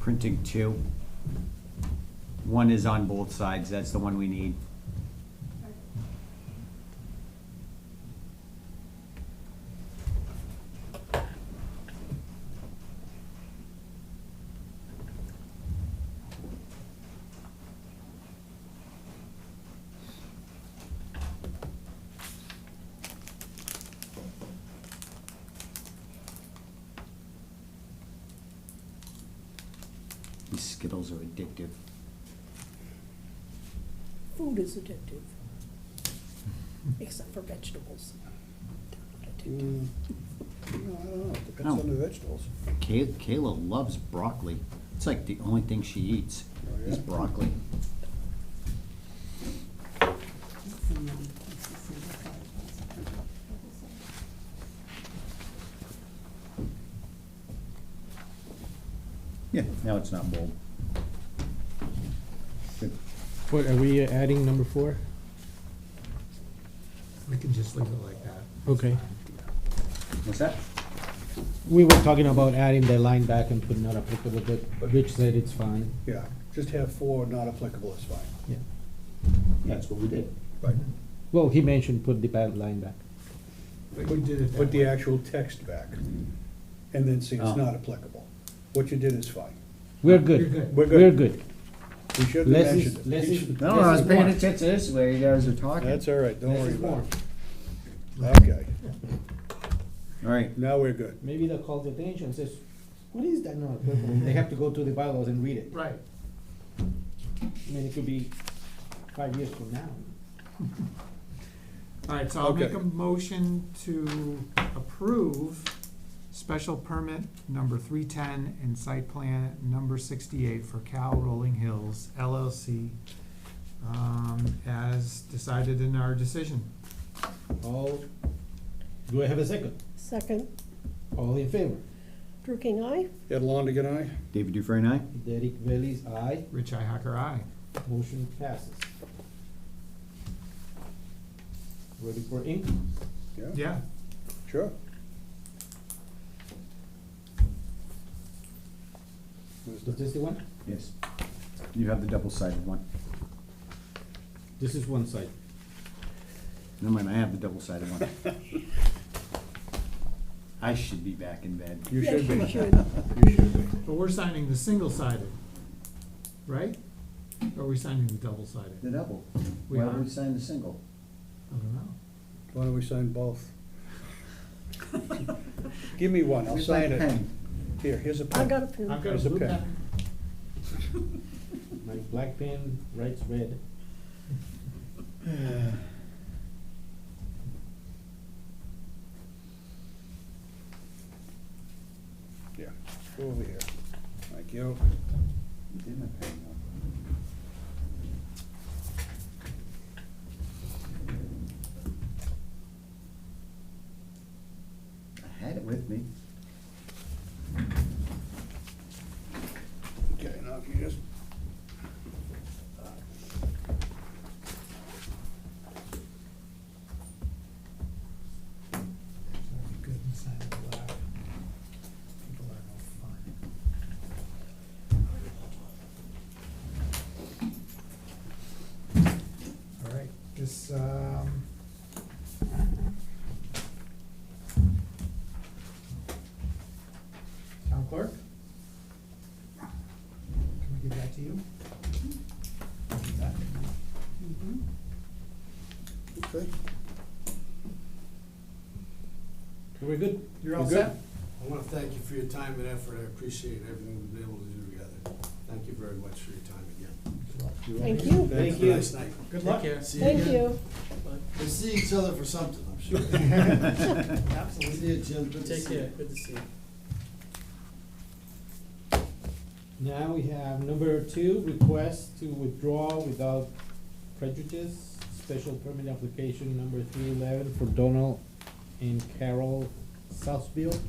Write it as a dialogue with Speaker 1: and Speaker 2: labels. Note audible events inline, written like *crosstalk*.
Speaker 1: printing two. One is on both sides, that's the one we need. These Skittles are addictive.
Speaker 2: Food is addictive. *laughs* Except for vegetables. They're not addictive.
Speaker 3: Mm, No, I don't know, It depends
Speaker 1: Oh.
Speaker 3: on the vegetables.
Speaker 1: Kay- Kayla loves broccoli. It's like the only thing she eats
Speaker 3: Oh, yeah?
Speaker 1: is broccoli. Yeah, now it's not bold. Good.
Speaker 4: What, are we uh, adding number four?
Speaker 5: We can just leave it like that.
Speaker 4: Okay.
Speaker 1: What's that?
Speaker 4: We were talking about adding the line back and putting not applicable, but Rich said it's fine.
Speaker 3: Yeah, just have four not applicable is fine.
Speaker 4: Yeah.
Speaker 1: Yeah, that's what we did.
Speaker 5: Right.
Speaker 4: Well, he mentioned put the bad line back.
Speaker 5: But you did it that
Speaker 3: Put the
Speaker 5: way.
Speaker 3: actual text back, and then see
Speaker 1: Oh.
Speaker 3: it's not applicable. What you did is fine.
Speaker 4: We're
Speaker 5: You're
Speaker 4: good.
Speaker 5: good.
Speaker 3: We're
Speaker 4: We're
Speaker 3: good.
Speaker 4: good.
Speaker 3: We shouldn't have
Speaker 4: Less
Speaker 3: mentioned it.
Speaker 4: is, less is.
Speaker 1: No,
Speaker 4: less
Speaker 1: I was
Speaker 4: is
Speaker 1: paying
Speaker 4: more.
Speaker 1: attention to this way you guys are talking.
Speaker 3: That's all right, don't
Speaker 4: Less
Speaker 3: worry
Speaker 4: is more.
Speaker 3: about it. Okay,
Speaker 1: All right,
Speaker 3: now we're good.
Speaker 4: Maybe they call the attention, says, what is that not applicable? They have to go to the bylaws and read it.
Speaker 5: Right.
Speaker 4: I mean, it could be five years from now.
Speaker 5: All right, so I'll make a
Speaker 3: Okay.
Speaker 5: motion to approve special permit number three-ten and site plan number sixty-eight for Cal Rolling Hills LLC um, as decided in our decision.
Speaker 4: All, do I have a second?
Speaker 2: Second,
Speaker 4: All in favor?
Speaker 2: Drew King, aye?
Speaker 3: Ed Longigan, aye?
Speaker 1: David Dufresne, aye?
Speaker 4: Derek Bailey's aye.
Speaker 5: Rich Ihacker, aye.
Speaker 4: Motion passes. Ready for ink?
Speaker 5: Yeah,
Speaker 3: Sure. Where's
Speaker 4: Is
Speaker 3: the-
Speaker 4: this the one?
Speaker 1: Yes. You have the double-sided one.
Speaker 4: This is one side.
Speaker 1: No, mind, I have the double-sided one. *laughs* I should be back in bed.
Speaker 3: You
Speaker 2: Yeah,
Speaker 3: should be,
Speaker 2: you
Speaker 3: you
Speaker 2: should.
Speaker 3: should be.
Speaker 5: but we're signing the single-sided, right? Or are we signing the double-sided?
Speaker 1: The double.
Speaker 5: We
Speaker 1: Why don't
Speaker 5: are.
Speaker 1: we sign the single?
Speaker 5: I don't know.
Speaker 3: Why don't we sign both? Give me one, I'll
Speaker 1: Where's my
Speaker 3: sign it.
Speaker 1: pen?
Speaker 3: Here, here's a
Speaker 2: I
Speaker 3: pen.
Speaker 2: got a pen.
Speaker 5: I've got a
Speaker 3: There's a
Speaker 5: blue
Speaker 3: pen.
Speaker 5: pen.
Speaker 4: My black pen writes red.
Speaker 3: Yeah, go over here. Thank you.
Speaker 1: Did my pen go? I had it with me.
Speaker 3: Okay, now if you just.
Speaker 5: Good and silent laugh. People are no fun. All right, this, um. Town clerk? Can we give that to you? That-
Speaker 3: Okay.
Speaker 4: We're good?
Speaker 5: You're
Speaker 4: We're
Speaker 5: all
Speaker 4: good?
Speaker 5: set?
Speaker 6: I want to thank you for your time and effort. I appreciate everything we've been able to do together. Thank you very much for your time again.
Speaker 2: Thank you.
Speaker 6: Have a nice night.
Speaker 5: Good luck.
Speaker 6: See
Speaker 2: Thank
Speaker 6: again.
Speaker 2: you.
Speaker 6: We'll see each other for something, I'm sure. See you, Jim. Good to see you.
Speaker 7: good to see you.
Speaker 4: Now we have number two, request to withdraw without prejudice, special permit application number three eleven for Donald and Carol Southfield.